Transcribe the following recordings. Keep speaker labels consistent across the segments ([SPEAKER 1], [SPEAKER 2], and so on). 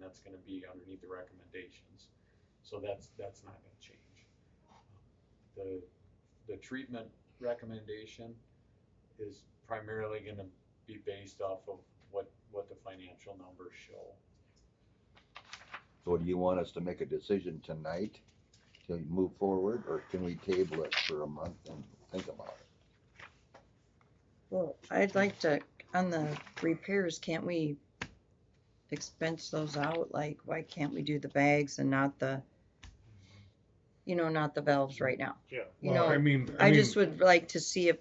[SPEAKER 1] that's gonna be underneath the recommendations. So that's, that's not gonna change. The, the treatment recommendation is primarily gonna be based off of what, what the financial numbers show.
[SPEAKER 2] So do you want us to make a decision tonight to move forward, or can we table it for a month and think about it?
[SPEAKER 3] Well, I'd like to, on the repairs, can't we expense those out? Like, why can't we do the bags and not the, you know, not the valves right now?
[SPEAKER 4] Yeah.
[SPEAKER 3] You
[SPEAKER 5] Well, I
[SPEAKER 3] know,
[SPEAKER 5] mean,
[SPEAKER 3] I
[SPEAKER 5] mean,
[SPEAKER 3] just would like to see a,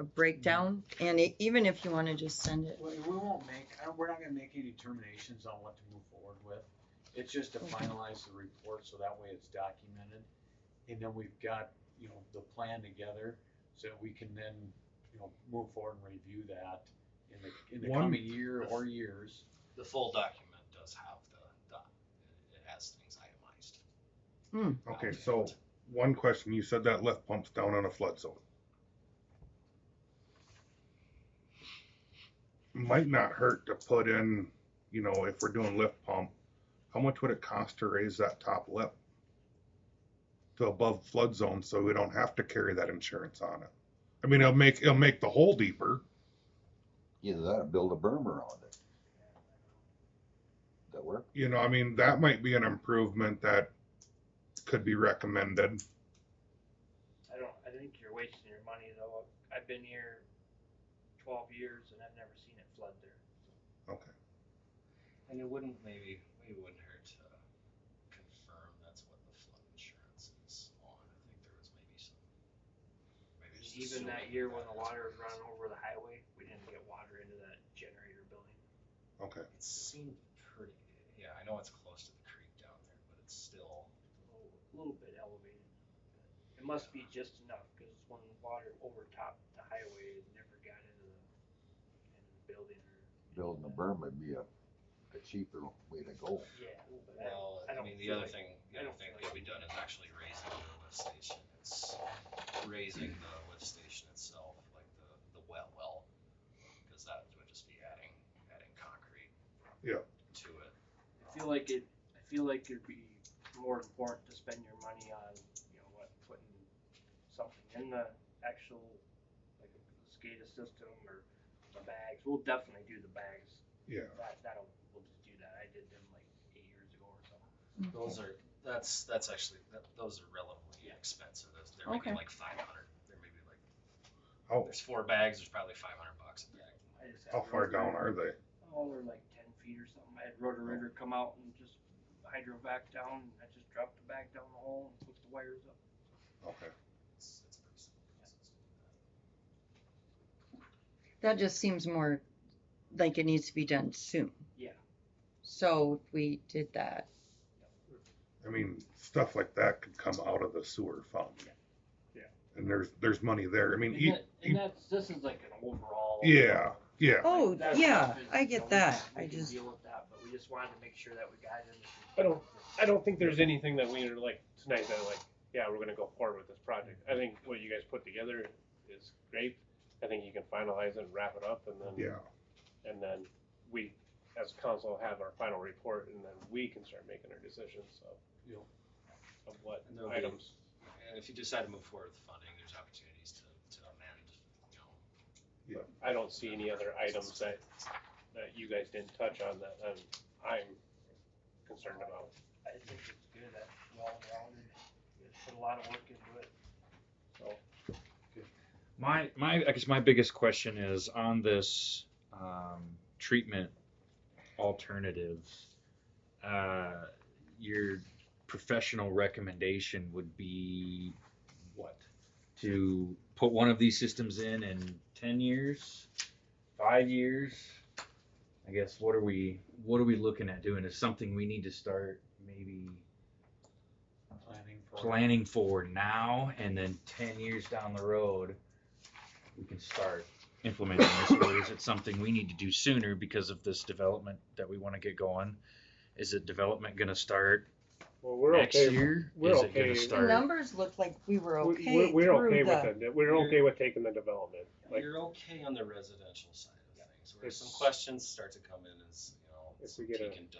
[SPEAKER 3] a breakdown and e- even if you want to just send it.
[SPEAKER 1] We we won't make, uh, we're not gonna make any determinations on what to move forward with. It's just to
[SPEAKER 3] Okay.
[SPEAKER 1] finalize the report, so that way it's documented. And then we've got, you know, the plan together, so that we can then, you know, move forward and review that in the, in the
[SPEAKER 5] One-
[SPEAKER 1] coming year or years.
[SPEAKER 6] The full document does have the, the it has things itemized.
[SPEAKER 5] Okay, so one question, you said that lift pumps down on a flood zone. Might not hurt to put in, you know, if we're doing lift pump, how much would it cost to raise that top lip? To above flood zone, so we don't have to carry that insurance on it. I mean, it'll make, it'll make the hole deeper.
[SPEAKER 2] Either that or build a berm around it. That work?
[SPEAKER 5] You know, I mean, that might be an improvement that could be recommended.
[SPEAKER 4] I don't, I think you're wasting your money though. I've been here twelve years and I've never seen it flood there.
[SPEAKER 5] Okay.
[SPEAKER 6] And it wouldn't maybe maybe it wouldn't hurt to confirm that's what the flood insurance is on. I think there was maybe some maybe just assuming
[SPEAKER 4] Even that year when the
[SPEAKER 6] that-
[SPEAKER 4] water was running over the highway, we didn't get water into that generator building.
[SPEAKER 5] Okay.
[SPEAKER 6] It seemed pretty. Yeah, I know it's close to the creek down there, but it's still.
[SPEAKER 4] A little- A little bit elevated. It must be just enough because when the water overtopped the highway, it never got into the, into the building or.
[SPEAKER 2] Building a berm would be a, a cheaper way to go.
[SPEAKER 4] Yeah, but I-
[SPEAKER 6] Well, I,
[SPEAKER 4] don't
[SPEAKER 6] mean, the
[SPEAKER 4] feel
[SPEAKER 6] other
[SPEAKER 4] like-
[SPEAKER 6] thing, the
[SPEAKER 4] I
[SPEAKER 6] other
[SPEAKER 4] don't
[SPEAKER 6] thing
[SPEAKER 4] feel
[SPEAKER 6] that
[SPEAKER 4] like-
[SPEAKER 6] we done is actually raising the lift station. It's raising the lift station itself, like the, the well well, because that would just be adding, adding concrete.
[SPEAKER 5] Yeah.
[SPEAKER 6] To it.
[SPEAKER 4] I feel like it, I feel like it'd be more important to spend your money on, you know, what, putting something in the actual, like a SCADA system or the bags. We'll definitely do the bags.
[SPEAKER 5] Yeah.
[SPEAKER 4] That, that'll, we'll just do that. I did them like eight years ago or something.
[SPEAKER 6] Those are, that's, that's actually, that, those are relatively expensive. Those, they're
[SPEAKER 3] Okay.
[SPEAKER 6] maybe like five hundred, they're maybe like,
[SPEAKER 5] How,
[SPEAKER 6] there's four bags, there's probably five hundred bucks a bag.
[SPEAKER 4] I just had
[SPEAKER 5] how far
[SPEAKER 4] Roto-Rooter-
[SPEAKER 5] down are Oh. they?
[SPEAKER 4] Oh, they're like ten feet or something. I had rotor rooter come out and just hydro back down. I just dropped the bag down the hole and hooked the wires up.
[SPEAKER 5] Okay.
[SPEAKER 6] It's, it's pretty simple. process to do that.
[SPEAKER 3] That just seems more like it needs to be done soon.
[SPEAKER 4] Yeah.
[SPEAKER 3] So if we did that.
[SPEAKER 5] I mean, stuff like that could come out of the sewer fund.
[SPEAKER 4] Yeah.
[SPEAKER 5] And there's, there's money there. I mean,
[SPEAKER 4] And,
[SPEAKER 5] e-
[SPEAKER 4] that, and that's, this is like an overall.
[SPEAKER 5] yeah, yeah.
[SPEAKER 3] Oh,
[SPEAKER 4] That
[SPEAKER 3] yeah,
[SPEAKER 4] stuff is-
[SPEAKER 3] I
[SPEAKER 4] you know,
[SPEAKER 3] get
[SPEAKER 4] we
[SPEAKER 3] that.
[SPEAKER 4] can- We
[SPEAKER 3] I
[SPEAKER 4] can
[SPEAKER 3] just,
[SPEAKER 4] deal with that, but we just wanted to make sure that we got it in.
[SPEAKER 7] I don't- I don't think there's anything that we are like tonight that like, yeah, we're gonna go forward with this project. I think what you guys put together is great. I think you can finalize it and wrap it up and then,
[SPEAKER 5] Yeah.
[SPEAKER 7] and then we, as council, have our final report and then we can start making our decisions
[SPEAKER 1] Yeah.
[SPEAKER 7] of, of what
[SPEAKER 6] And there'll be-
[SPEAKER 7] items.
[SPEAKER 6] And if you decide to move forward with funding, there's opportunities to, to amend, you know,
[SPEAKER 7] I don't see any other items that, that you guys didn't touch on that I'm, I'm concerned about.
[SPEAKER 4] I think it's good, that's well rounded. You put a lot of work into it.
[SPEAKER 8] My my I guess my biggest question is on this um, treatment alternative. Uh, your professional recommendation would be what? To put one of these systems in in ten years, five years. I guess what are we what are we looking at doing? Is something we need to start maybe
[SPEAKER 1] Planning for.
[SPEAKER 8] planning for now and then 10 years down the road we can start implementing this or is it something we need to do sooner because of this development that we want to get going is it development going to start
[SPEAKER 7] Well, we're
[SPEAKER 8] next
[SPEAKER 7] okay.
[SPEAKER 8] year
[SPEAKER 7] we're
[SPEAKER 8] is
[SPEAKER 7] okay.
[SPEAKER 8] it going
[SPEAKER 7] The
[SPEAKER 8] to
[SPEAKER 3] the
[SPEAKER 8] start
[SPEAKER 3] numbers look like we were
[SPEAKER 7] We're,
[SPEAKER 3] okay
[SPEAKER 7] we're- we're okay
[SPEAKER 3] through the.
[SPEAKER 7] with it. We're okay with taking the development. Like,
[SPEAKER 6] You're okay on the residential side of things, where
[SPEAKER 7] It's-
[SPEAKER 6] some questions start to come in as, you know,
[SPEAKER 7] If
[SPEAKER 6] some
[SPEAKER 7] we get a-
[SPEAKER 6] peek and